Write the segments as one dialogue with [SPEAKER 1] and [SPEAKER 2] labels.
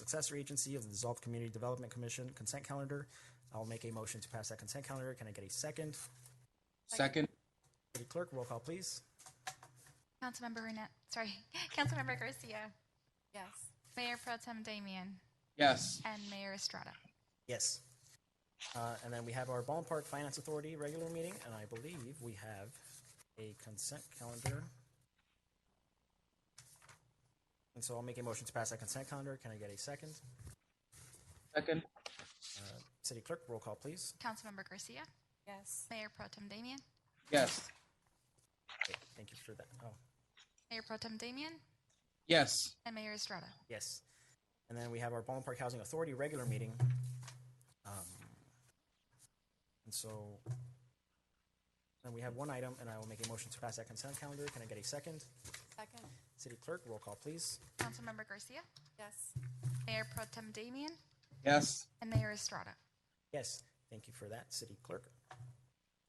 [SPEAKER 1] successor agency of the dissolved Community Development Commission consent calendar. I'll make a motion to pass that consent calendar. Can I get a second?
[SPEAKER 2] Second,
[SPEAKER 1] City Clerk, roll call, please.
[SPEAKER 3] Councilmember Burnett, sorry, Councilmember Garcia,
[SPEAKER 4] Yes.
[SPEAKER 3] Mayor Pro Tem Damian,
[SPEAKER 2] yes.
[SPEAKER 3] and Mayor Estrada.
[SPEAKER 1] Yes. Uh, And then we have our ballpark Finance Authority regular meeting, and I believe we have a consent calendar. And so I'll make a motion to pass that consent calendar. Can I get a second? Uh,
[SPEAKER 2] Second,
[SPEAKER 1] City Clerk, roll call, please.
[SPEAKER 3] Councilmember Garcia,
[SPEAKER 4] Yes.
[SPEAKER 3] Mayor Pro Tem Damian,
[SPEAKER 2] yes.
[SPEAKER 1] Okay, Thank you for that. Oh,
[SPEAKER 3] Mayor Pro Tem Damian,
[SPEAKER 2] Yes.
[SPEAKER 3] and Mayor Estrada.
[SPEAKER 1] yes. And then we have our Ballin Park Housing Authority regular meeting. Um, And so, then we have one item, and I will make a motion to pass that consent calendar. Can I get a second?
[SPEAKER 4] Second.
[SPEAKER 1] City Clerk, roll call, please.
[SPEAKER 3] Councilmember Garcia,
[SPEAKER 4] Yes.
[SPEAKER 3] Mayor Pro Tem Damian,
[SPEAKER 2] Yes.
[SPEAKER 3] and Mayor Estrada.
[SPEAKER 1] Yes, thank you for that, City Clerk.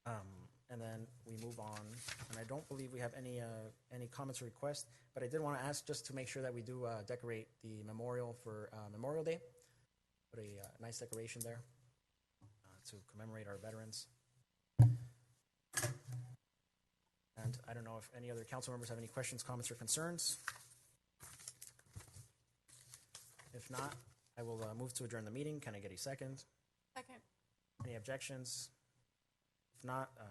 [SPEAKER 1] Um, And then we move on, and I don't believe we have any, uh, any comments or requests, but I did want to ask just to make sure that we do uh, decorate the memorial for uh, Memorial Day. Put a uh, nice decoration there uh, to commemorate our veterans. And I don't know if any other council members have any questions, comments, or concerns. If not, I will uh, move to adjourn the meeting. Can I get a second?
[SPEAKER 4] Second.
[SPEAKER 1] Any objections? If not, uh,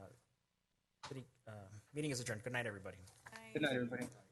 [SPEAKER 1] city, uh, meeting is adjourned. Good night, everybody.
[SPEAKER 4] Aye.
[SPEAKER 2] Good night, everybody.